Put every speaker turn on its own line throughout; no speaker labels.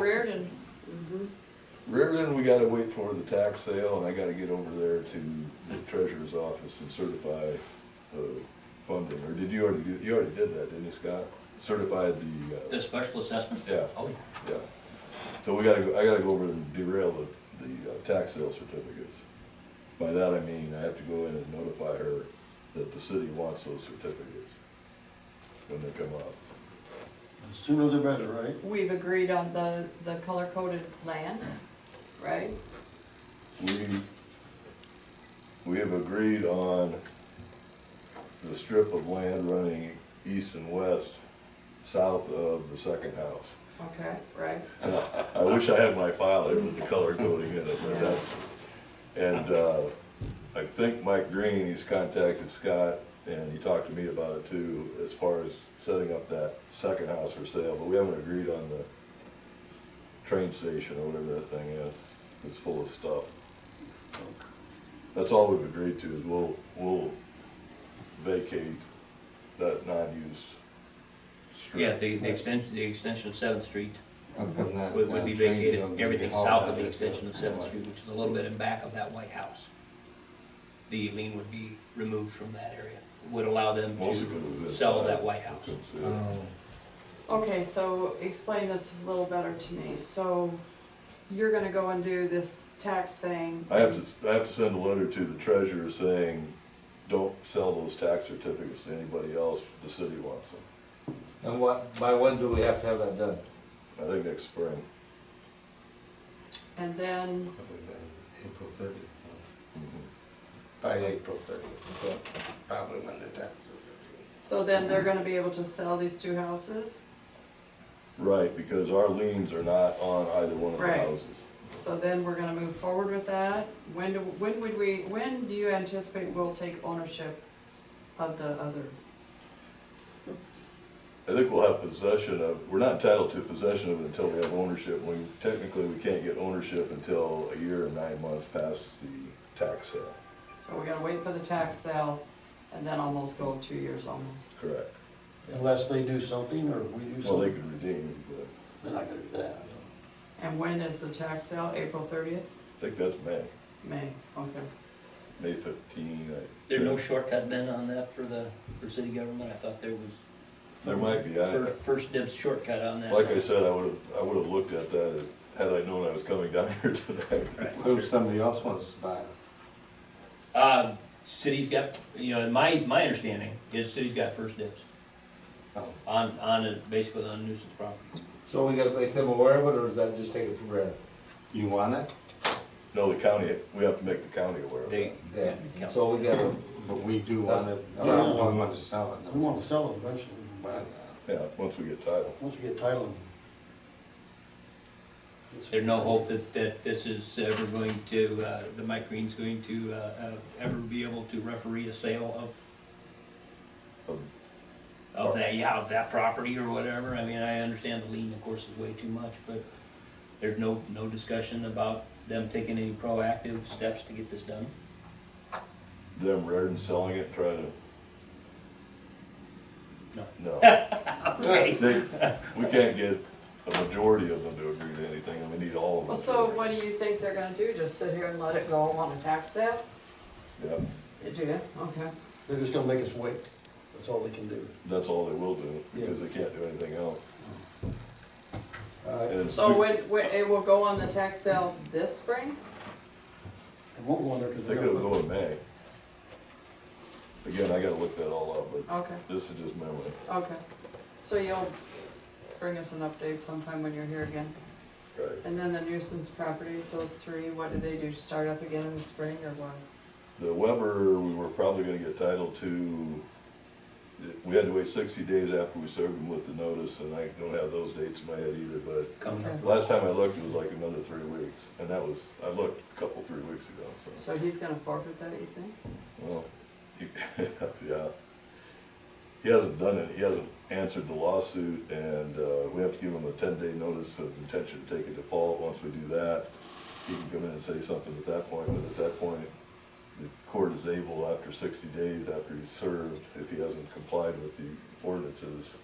Mm-hmm.
Riverton, we gotta wait for the tax sale, and I gotta get over there to the treasurer's office and certify, uh, funding, or did you already, do- you already did that, didn't you, Scott? Certified the, uh.
The special assessment?
Yeah.
Oh,
Yeah, so we gotta, go- I gotta go over and derail the, the uh, tax sale certificates. By that I mean, I have to go in and notify her that the city wants those certificates when they come up.
The Sooner the better, right?
We've agreed on the, the color-coded land, right?
We, we have agreed on the strip of land running east and west, south of the second house.
Okay, right.
I wish I had my file there with the color coding in it, but that's, and, uh, I think Mike Green, he's contacted Scott, and he talked to me about it too, as far as setting up that second house for sale, but we haven't agreed on the train station or whatever that thing is, it's full of stuff. That's all we've agreed to, is we'll, we'll vacate that non-used strip.
Yeah, the, the extension, the extension of Seventh Street
How come that,
would, would be
uh, train
vacated,
don't get
everything
hauled
south
out
of the
there?
extension of Seventh Street, which is a little bit in back of that White House. The lien would be removed from that area, would allow them
Mostly 'cause of
to
this
sell
side.
that White House.
Uh,
Oh,
Okay, so explain this a little better to me. So you're gonna go and do this tax thing?
I have to, I have to send a letter to the treasurer saying, don't sell those tax certificates to anybody else, the city wants them.
And what, by when do we have to have that done?
I think next spring.
And then,
Probably by April thirtieth. By
So-
April thirtieth, probably when the taxes are
so then they're gonna be able to sell these two houses?
Right, because our liens are not on either one of the
Right.
houses.
So then we're gonna move forward with that? When do, when would we, when do you anticipate we'll take ownership of the other?
I think we'll have possession of, we're not entitled to possession of it until we have ownership. We, technically, we can't get ownership until a year and nine months past the tax sale,
So we gotta wait for the tax sale and then almost go two years almost.
correct?
Unless they do something or we do
Well, they
something,
could redeem, but
they're not gonna do that.
And when is the tax sale? April thirtieth?
I think that's May,
May, okay.
May fifteen, I.
There's no
think.
shortcut then on that for the, for city government, I thought there was.
There might be, I.
First, first dibs shortcut on that.
Like I said, I would've, I would've looked at that had I known I was coming down here tonight.
Right.
due. Who if somebody else wants to buy it?
Uh, city's got, you know, my, my understanding is city's got first dibs
Oh,
on, on, a- basically on nuisance property.
So we gotta make them aware of it, or is that just taken for granted?
You want it?
No, the county, we have to make the county aware of
They,
that.
Yeah,
yeah.
so we gotta,
But we do
That's-
want it,
Oh,
we
yeah.
want to sell it.
We wanna sell it eventually,
But,
but
Yeah, once we get title.
once we get title. it's-
There's no hope that, that this is ever going to, uh, the Mike Green's going to, uh, uh, ever be able to referee a sale of,
Of-
of that, yeah, of that property or whatever. I mean, I understand the lien, of course, is way too much, but there's no, no discussion about them taking any proactive steps to get this done.
Them rather than selling it, try to.
No.
No.
Okay.
They, we can't get a majority of them to agree to anything, and we need all of them.
Well,
to
so
agree.
what do you think they're gonna do? Just sit here and let it go on a tax sale?
Yeah,
They do, it? okay.
They're just gonna make us wait, that's all they can do.
that's all they will do, because they can't do anything else.
Uh,
alright,
And
So
we-
when, when, it will go on the tax sale this spring?
They won't go in there because
They
they're
could
gonna.
have go in May. Again, I gotta look that all up, but
Okay,
this is just memory.
okay. So you'll bring us an update sometime when you're here again?
Right.
And then the nuisance properties, those three, what do they do? Start up again in the spring or what?
The Weber, we were probably gonna get title to, we had to wait sixty days after we served them with the notice, and I don't have those dates in my head either, but
Coming up.
Okay.
last time I looked, it was like another three weeks, and that was, I looked a couple, three weeks ago, so,
So he's gonna forfeit that, you think?
well, he, yeah. He hasn't done it, he hasn't answered the lawsuit, and, uh, we have to give him a ten-day notice of intention to take a default, once we do that, he can come in and say something at that point, but at that point, the court is able, after sixty days after he's served, if he hasn't complied with the ordinances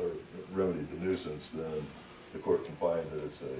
or remedied the nuisance, then the court can find that it's a